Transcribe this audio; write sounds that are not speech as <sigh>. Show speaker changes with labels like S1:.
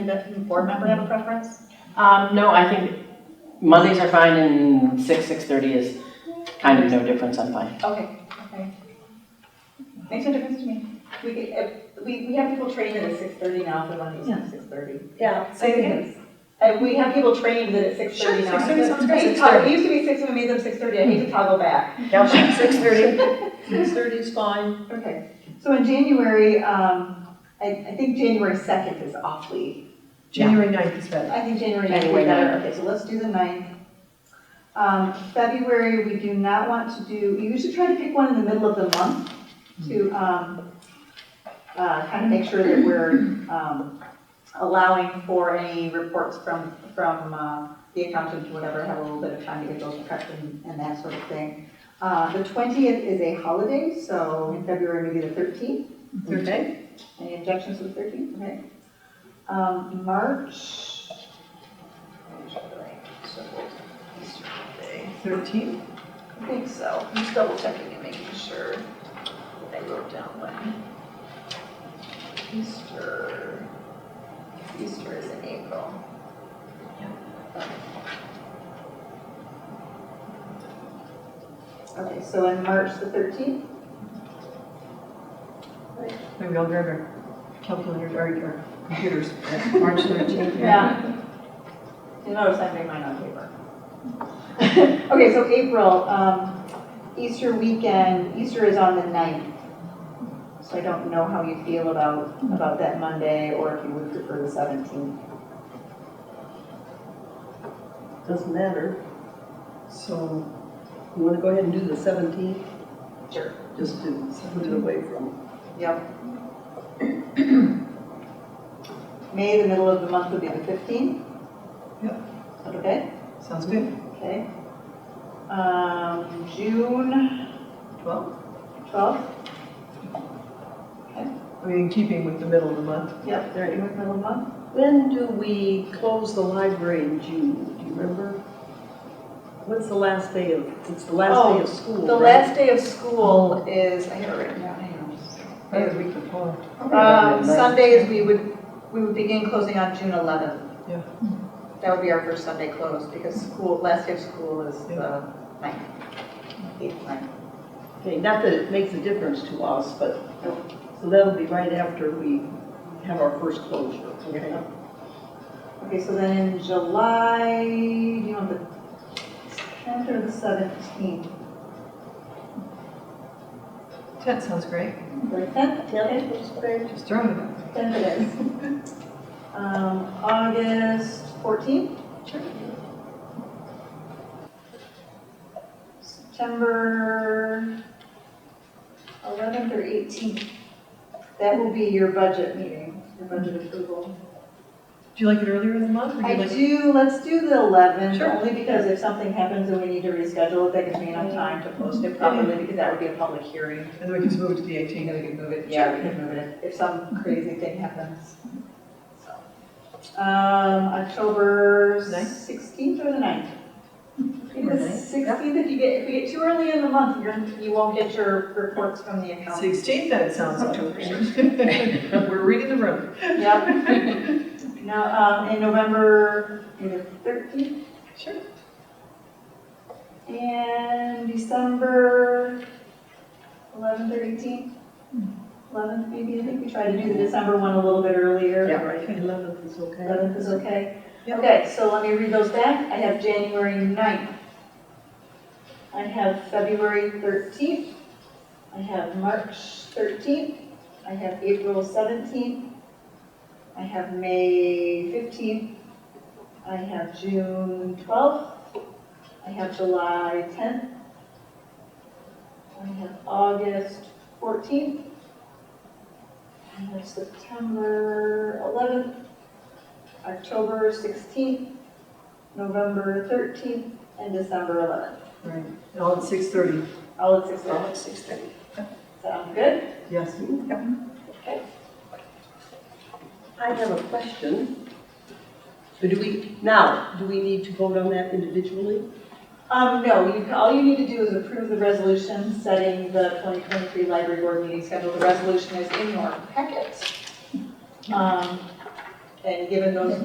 S1: Does the board member have a preference?
S2: Um, no, I think Mondays are fine and six, six thirty is kind of no difference, I'm fine.
S1: Okay, okay. Makes no difference to me. We, could- if- we, we have people trained at six thirty now for Mondays at six thirty.
S3: Yeah,
S1: Say it again. Uh, we have people trained that at six thirty now.
S3: Sure, 6:30 sounds
S1: I
S3: great.
S1: hate to toggle- It used to be six, and we made them six thirty, I hate to toggle back.
S3: Six thirty. Six thirty is fine.
S1: Okay, so in January, um, I, I think January second is awfully,
S3: January ninth is better.
S1: I think January ninth would be
S2: January
S1: better. Okay, so let's do the ninth. Um, February, we do not want to do, we usually try to pick one in the middle of the month to, um, uh, kind of make sure that we're, um, allowing for any reports from, from, uh, the accountant, or whatever, have a little bit of time to get those prepped and, and that sort of thing. Uh, the twentieth is a holiday, so in February, maybe the thirteenth.
S3: Thirteenth?
S1: Any objections to the thirteenth? Okay. Um, March.
S3: Thirteenth.
S1: I think so. I'm just double checking and making sure that I wrote down when. Easter, Easter is in April. Okay, so in March the thirteenth?
S3: Maybe we will grab our calculators, or our computers.
S4: <laughs>
S3: March thirteenth.
S1: Yeah. You notice I made mine on paper. <laughs> Okay, so April, um, Easter weekend, Easter is on the 9th. So I don't know how you feel about, about that Monday, or if you would prefer the seventeenth.
S4: Doesn't matter.
S3: So,
S4: You want to go ahead and do the 17th,
S1: Sure.
S4: just to put it away from.
S1: Yep. <clears throat> May, the middle of the month would be the fifteenth.
S3: Yep.
S1: Okay,
S3: sounds good.
S1: okay. Um, June
S3: Twelve?
S1: twelfth,
S3: I mean, in keeping with the middle of the month.
S1: yep, they're in the middle of the month.
S4: When do we close the library in June? Do you remember? What's the last day of, it's the
S3: Oh,
S4: last day of school,
S1: The
S4: right?
S1: last day of school is, I have it written down, hang on. just a second.
S3: Or the week before.
S4: Uh,
S1: Um, Sundays, we would, we would begin closing on June eleventh.
S3: Yeah.
S1: That would be our first Sunday close, because school, last day of school is the ninth, eighth, ninth.
S4: Okay, not that it makes a difference to us, but, so that'll be right after we have our first closure, okay?
S1: Okay, so then in July, you know, the tenth or the seventeenth,
S3: Tenth sounds great.
S1: the tenth,
S4: Yeah, that's great.
S3: Just throwing it out.
S1: tenth it is. Um, August fourteenth?
S3: Sure.
S1: September 11th or 18th. That will be your budget meeting, your budget approval.
S3: Do you like it earlier in the month? or do you
S1: I
S3: like-
S1: do, let's do the 11th,
S3: Sure.
S1: only because if something happens and we need to reschedule it, that gives me enough time to post it properly, because that would be a public hearing.
S3: And then we can just move it to the eighteenth.
S1: And then we can move it, yeah, we can move it if some crazy thing happens. So, Um, October
S3: Ninth?
S1: 16th or the 9th? Because
S3: Ninth,
S1: 16th, if you get, if we get too early in the month, you're, you won't get your reports from the account.
S3: Sixteenth, then it sounds like. <laughs> We're reading the room.
S1: Yep. <laughs> Now, um, in November, maybe thirteenth?
S3: Sure.
S1: And December eleventh or eighteenth? Eleventh, maybe, I think we tried to do the December one a little bit earlier.
S4: Yeah, right, 11th is okay.
S1: 11th is okay?
S3: Yep.
S1: Okay, so let me read those back. I have January 9th. I have February 13th. I have March 13th. I have April 17th. I have May 15th. I have June 12th. I have July 10th. I have August 14th. I have September 11th. October 16th, November 13th, and December 11th.
S3: Right, and all at six thirty.
S1: All at 6
S4: Well,
S1: o'clock.
S4: it's 6:30.
S1: Sound good?
S3: Yes.
S4: I have a question. So do we, now, do we need to vote on that individually?
S1: Um, no, you, all you need to do is approve the resolution setting the 2023 library board meeting schedule. The resolution is in your packet. Um, And given those